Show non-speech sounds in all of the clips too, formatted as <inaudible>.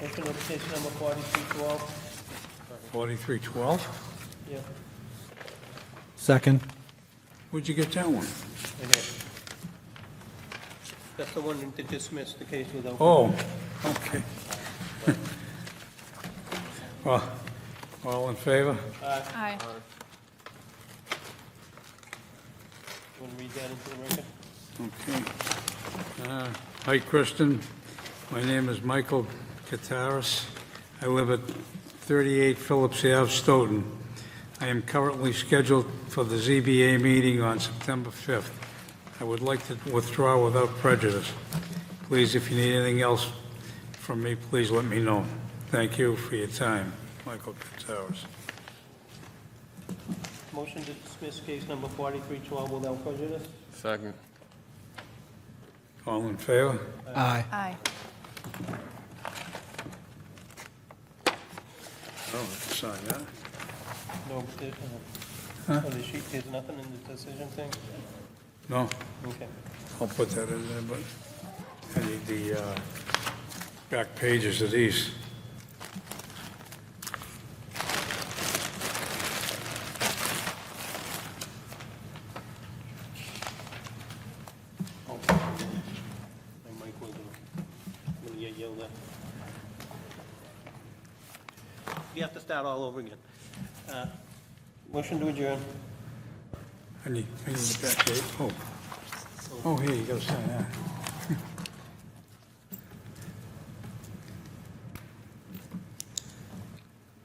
special education number forty-three twelve. 4312? Yeah, Second. Where'd you get that one? right here. That's the one that dismissed the case without. Oh, okay. <laughs> Well, all in favor? Aye. You want to read that into the record? Okay. Uh, Hi, Kristen. My name is Michael Kataris. I live at 38 Phillips Ave, Stoughton. I am currently scheduled for the ZBA meeting on September 5th. I would like to withdraw without prejudice. Please, if you need anything else from me, please let me know. Thank you for your time, Michael Kataris. Motion to dismiss case number forty-three twelve without prejudice? Second. All in favor? Aye. Aye. Oh, sign that. No, there- uh, on the sheet, there's nothing in the decision thing? No? Okay. I'll put that in there, but I need the uh, back pages of these. Oh, My mic was on. I'm gonna get yelled at. You have to start all over again. Uh, Motion to adjourn. I need, I need the back page, oh. Oh, here, you gotta sign that.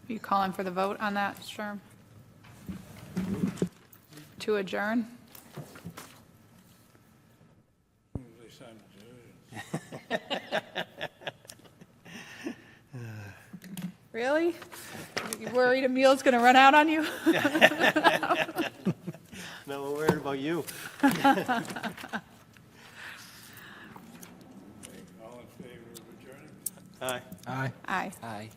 You calling for the vote on that, Sherm? To adjourn? Really? You worried Emile's going to run out on you? No, we're worried about you. All in favor of adjourning? Aye. Aye. Aye. Aye.